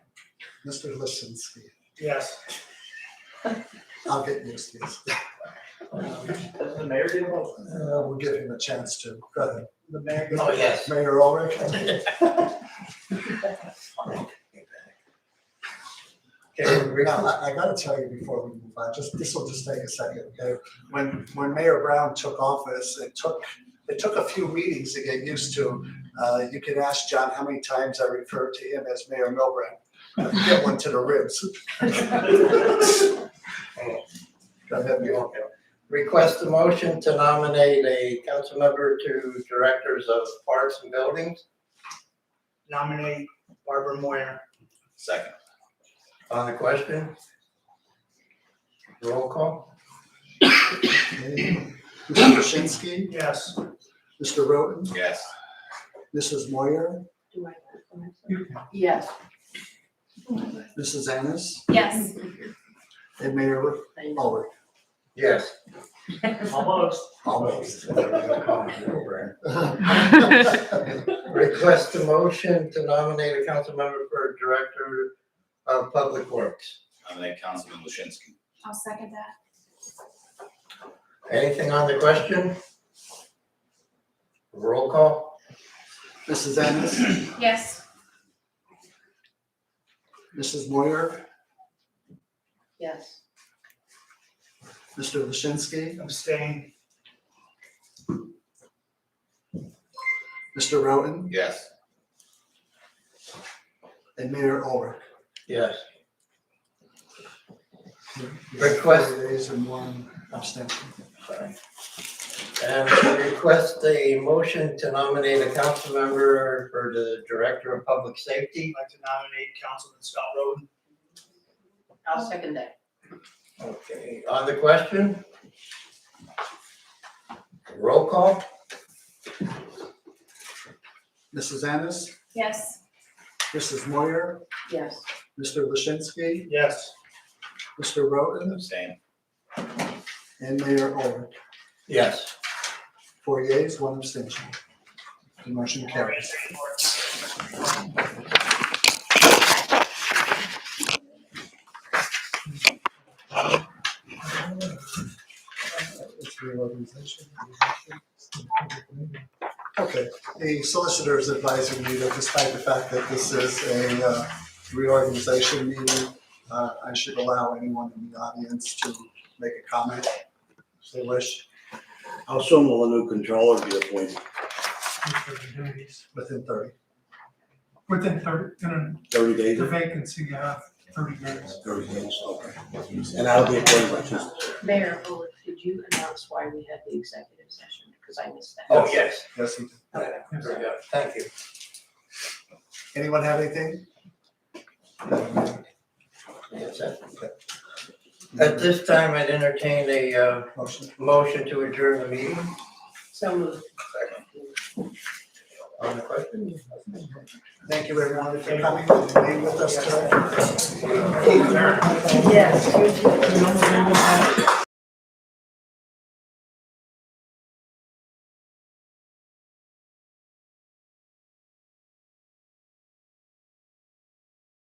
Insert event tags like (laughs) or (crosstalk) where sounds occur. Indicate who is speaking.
Speaker 1: Mr. Lisinski.
Speaker 2: Yes.
Speaker 1: I'll get used to this.
Speaker 2: Does the mayor get a vote?
Speaker 1: Uh, We'll give him a chance to. Go ahead.
Speaker 2: The mayor.
Speaker 3: Oh, yes.
Speaker 1: Mayor Ulrich.
Speaker 2: Okay, we
Speaker 1: Now, I, I gotta tell you before we move on, just, this will just take a second, okay? When, when Mayor Brown took office, it took, it took a few meetings to get used to. Uh, you can ask John how many times I referred to him as Mayor Milbrand. I Get one to the (laughs) ribs. Go ahead, Mayor.
Speaker 3: Request a motion to nominate a council member to directors of parks and buildings.
Speaker 2: nominate Barbara Moyer.
Speaker 4: Second.
Speaker 3: On the question? Roll call?
Speaker 1: Okay. Mr. Shinsky,
Speaker 2: Yes.
Speaker 1: Mr. Roten,
Speaker 4: Yes.
Speaker 1: Mrs. Moyer,
Speaker 5: Do I? am I- Yes.
Speaker 1: Mrs. Annis,
Speaker 5: Yes.
Speaker 1: and Mayor Ulrich.
Speaker 3: Yes.
Speaker 5: Oh,
Speaker 2: Almost.
Speaker 1: Almost.
Speaker 3: Request a motion to nominate a council member for director of public works.
Speaker 4: Nominate Councilman Lushinsky.
Speaker 5: I'll second that.
Speaker 3: Anything on the question? Roll call?
Speaker 1: Mrs. Annis,
Speaker 5: Yes.
Speaker 1: Mrs. Moyer,
Speaker 5: Yes.
Speaker 1: Mr. Lashinsky,
Speaker 2: Abstain.
Speaker 1: Mr. Roten,
Speaker 4: Yes.
Speaker 1: and Mayor Ulrich.
Speaker 3: Yes. Request.
Speaker 1: Request Yeas and one abstention.
Speaker 3: Sorry. And request a motion to nominate a council member for the director of public safety.
Speaker 2: I'd like to nominate Councilman Scott Roden.
Speaker 5: I'll second that.
Speaker 3: Okay, on the question? Roll call?
Speaker 1: Mrs. Annis,
Speaker 5: Yes.
Speaker 1: Mrs. Moyer,
Speaker 5: Yes.
Speaker 1: Mr. Lashinsky,
Speaker 2: Yes.
Speaker 1: Mr. Roten,
Speaker 4: Abstain.
Speaker 1: and Mayor Ulrich.
Speaker 3: Yes.
Speaker 1: Four yeas, one abstention. The motion carries. It's reorganization. Okay, the solicitor's advising me that despite the fact that this is a uh, reorganization meeting, uh, I should allow anyone in the audience to make a comment if they wish
Speaker 6: How soon will a new controller be appointed?
Speaker 1: within thirty.
Speaker 7: Within thirty, in
Speaker 6: Thirty days?
Speaker 7: the vacancy, yeah, thirty days.
Speaker 6: Thirty days, okay. And that'll be appointed by Tuesday.
Speaker 5: Mayor Bullock, could you announce why we had the executive session? Because I missed that.
Speaker 3: Oh, yes.
Speaker 1: Yes, he did.
Speaker 3: Very good. Thank you.
Speaker 1: Anyone have anything?
Speaker 3: Yes, sir. At this time, I'd entertain a uh,
Speaker 1: Motion.
Speaker 3: motion to adjourn the meeting.
Speaker 5: So moved.
Speaker 3: On the question?
Speaker 1: Thank you everyone for coming and being with us today.
Speaker 5: Yes.